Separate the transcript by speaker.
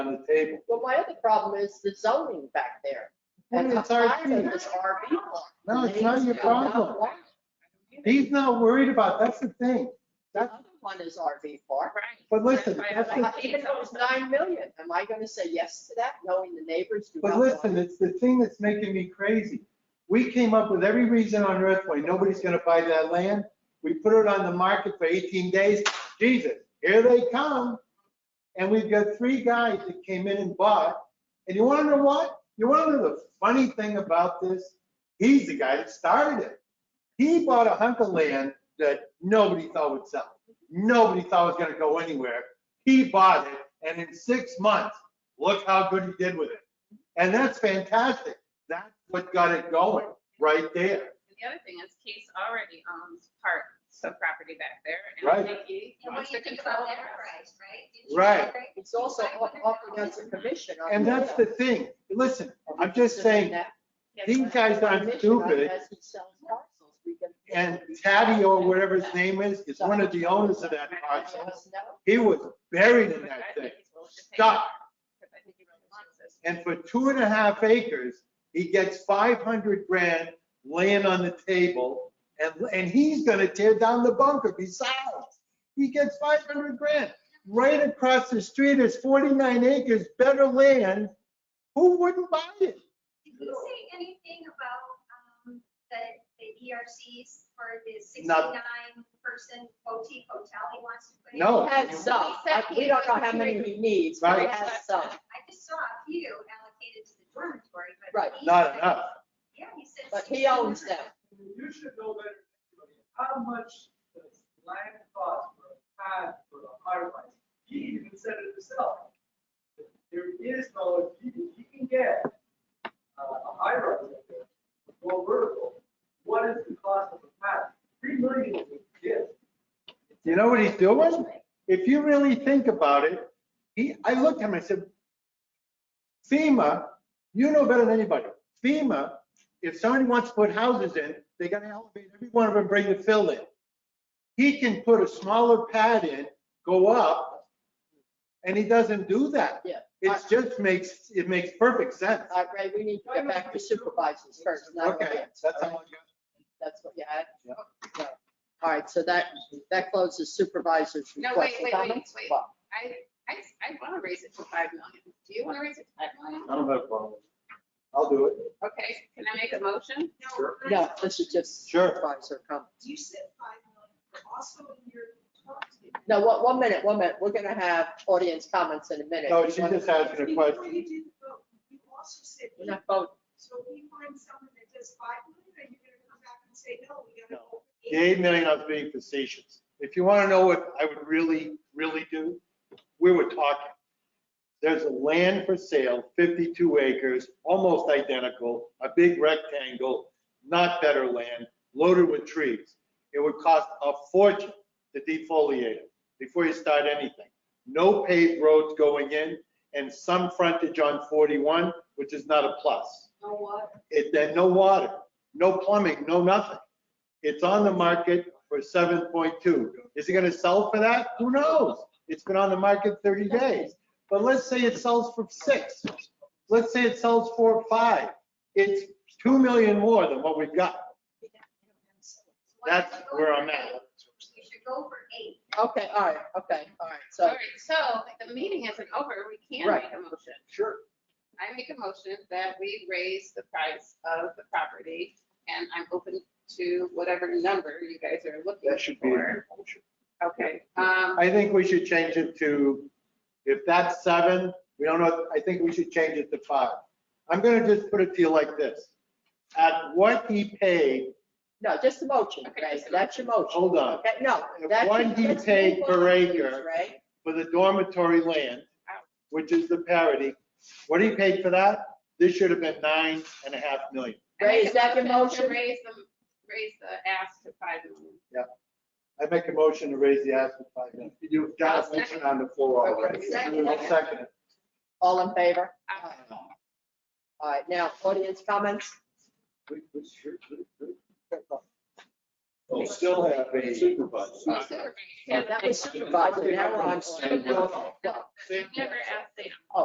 Speaker 1: on the table.
Speaker 2: Well, my other problem is the zoning back there. And I'm
Speaker 3: It's
Speaker 2: tired of
Speaker 3: RP.
Speaker 2: this RV lot.
Speaker 3: No, it's not your problem. He's not worried about, that's the thing.
Speaker 2: The
Speaker 3: That's,
Speaker 2: other one is RV park.
Speaker 3: but listen, that's the
Speaker 2: Uh, Even though it's nine million, am I gonna say yes to that, knowing the neighbors do not
Speaker 3: But
Speaker 2: want
Speaker 3: listen,
Speaker 2: it?
Speaker 3: it's the thing that's making me crazy. We came up with every reason on earth why nobody's gonna buy that land. We put it on the market for 18 days. Jesus, here they come. And we've got three guys that came in and bought. And you wanna know what? You wanna know the funny thing about this? He's the guy that started it. He bought a hunk of land that nobody thought would sell. Nobody thought was gonna go anywhere. He bought it, and in six months, look how good he did with it. And that's fantastic. That's what got it going right there.
Speaker 4: And The other thing is Case already owns part, some property back there.
Speaker 3: Right.
Speaker 4: And Nikki
Speaker 5: And
Speaker 4: wants
Speaker 5: when
Speaker 4: to
Speaker 5: you think about
Speaker 4: control the
Speaker 5: their
Speaker 4: rest.
Speaker 5: price, right? Didn't you
Speaker 3: Right.
Speaker 5: agree?
Speaker 2: It's also up up against a commission. on
Speaker 3: And that's the
Speaker 2: land.
Speaker 3: thing. Listen,
Speaker 2: Are we
Speaker 3: I'm just
Speaker 2: considering
Speaker 3: saying,
Speaker 2: that?
Speaker 4: Yes,
Speaker 3: these
Speaker 4: but-
Speaker 3: guys aren't stupid.
Speaker 2: As he sells parcels, we can-
Speaker 3: And Taddy or whatever his name is, is one of the owners of that parcel. He was buried in
Speaker 4: but I
Speaker 3: that thing.
Speaker 4: think he's willing to pay
Speaker 3: Stop.
Speaker 4: more, 'cause I think he really wants this.
Speaker 3: And for two and a half acres, he gets 500 grand laying on the table. And, and he's gonna tear down the bunker besides. He gets 500 grand. Right across the street is 49 acres, better land. Who wouldn't buy it?
Speaker 5: Did you say anything about um, the, the ERCs for the
Speaker 3: No.
Speaker 5: 69 person boutique hotel he wants to put in?
Speaker 3: No.
Speaker 2: Has some, I- we don't know how many he needs, but he
Speaker 3: Right.
Speaker 2: has some.
Speaker 5: I just saw a few allocated to the dormitory, but.
Speaker 2: Right.
Speaker 5: he
Speaker 3: Not
Speaker 5: said-
Speaker 3: enough.
Speaker 5: Yeah, he said.
Speaker 2: But he owns them.
Speaker 6: You should know better. than anybody. How much does land cost for a pad for a high rise? He even said it himself. There is no, if you, if you can get uh, a high rise up there, go vertical, what is the cost of a pad? Three million is a gift.
Speaker 3: You know what he's doing? If you really think about it, he, I looked at him, I said, FEMA, you know better than anybody. FEMA, if somebody wants to put houses in, they gotta elevate every one of them, bring the fill in. He can put a smaller pad in, go up, and he doesn't do that.
Speaker 2: Yeah.
Speaker 3: It just makes, it makes perfect sense.
Speaker 2: All right, Uh, Ray, we need to get back to supervisors first, not our
Speaker 3: Okay,
Speaker 2: hands.
Speaker 3: that's
Speaker 2: all
Speaker 3: all I
Speaker 2: right?
Speaker 3: got.
Speaker 2: That's what you had?
Speaker 3: Yep.
Speaker 2: Yeah. All right, so that, that closes supervisors'
Speaker 4: No,
Speaker 2: request.
Speaker 4: wait, wait, wait,
Speaker 2: Comments?
Speaker 4: wait.
Speaker 2: Well,
Speaker 4: I, I, I want to raise it to five million. Do you want to raise it to five million?
Speaker 3: I don't have a problem. I'll do it.
Speaker 4: Okay, can I make a motion?
Speaker 3: Sure.
Speaker 2: No, this is just
Speaker 3: Sure.
Speaker 2: supervisor comment.
Speaker 7: You said five million, but also in your talk to me.
Speaker 2: No, one, one minute, one minute. We're gonna have audience comments in a minute.
Speaker 3: No,
Speaker 2: We
Speaker 3: she
Speaker 2: wanna-
Speaker 3: just asking a
Speaker 7: Before
Speaker 3: question.
Speaker 7: you do the vote, you also said,
Speaker 2: We're not voting.
Speaker 7: so we find someone that does five million, and you're gonna come back and say, no, we gotta
Speaker 3: No.
Speaker 7: go.
Speaker 3: The eight million, I was being facetious. If you want to know what I would really, really do, we were talking. There's a land for sale, 52 acres, almost identical, a big rectangle, not better land, loaded with trees. It would cost a fortune to defoliate it before you start anything. No paved roads going in and some frontage on 41, which is not a plus.
Speaker 7: No what?
Speaker 3: It, then no water, no plumbing, no nothing. It's on the market for seven point two. Is it gonna sell for that? Who knows? It's been on the market thirty days. But let's say it sells for six. Let's say it sells for five. It's two million more than what we've got.
Speaker 5: Why don't
Speaker 3: That's
Speaker 5: you go
Speaker 3: where
Speaker 5: for
Speaker 3: I'm at.
Speaker 5: eight? You should go for eight.
Speaker 2: Okay, all right, okay, all right.
Speaker 4: All
Speaker 2: So,
Speaker 4: right, so the meeting isn't over. We can
Speaker 2: Right.
Speaker 4: make a motion.
Speaker 3: Sure.
Speaker 4: I make a motion that we raise the price of the property, and I'm open to whatever number you guys are looking
Speaker 3: That should be.
Speaker 4: for. Okay, um,
Speaker 3: I think we should change it to, if that's seven, we don't know, I think we should change it to five. I'm gonna just put it to you like this. At what he paid
Speaker 2: no, just the motion,
Speaker 4: Okay,
Speaker 2: Ray.
Speaker 4: just the
Speaker 2: That's your motion.
Speaker 3: Hold on.
Speaker 2: Okay, no.
Speaker 3: If
Speaker 2: that's-
Speaker 3: one he
Speaker 2: let's
Speaker 3: paid
Speaker 2: move
Speaker 3: per
Speaker 2: on, please,
Speaker 3: acre.
Speaker 2: Ray.
Speaker 3: for the dormitory land, which is the parity, what he paid for that, this should have been nine and a half million.
Speaker 4: I make
Speaker 2: Ray, is
Speaker 4: a
Speaker 2: that your
Speaker 4: To
Speaker 2: motion?
Speaker 4: raise the, raise the ask to five million.
Speaker 3: I make a motion to raise the ask to five million. You've got a motion on the floor already.
Speaker 2: Second.
Speaker 3: I'll second it.
Speaker 2: All in favor?
Speaker 4: Uh,
Speaker 2: All right, now, audience comments?
Speaker 1: We still have a supervisor.
Speaker 4: who's
Speaker 2: uh,
Speaker 4: supervising?
Speaker 2: That was supervisor, now we're on.
Speaker 1: Stand with us.
Speaker 2: No,
Speaker 4: Never asked them.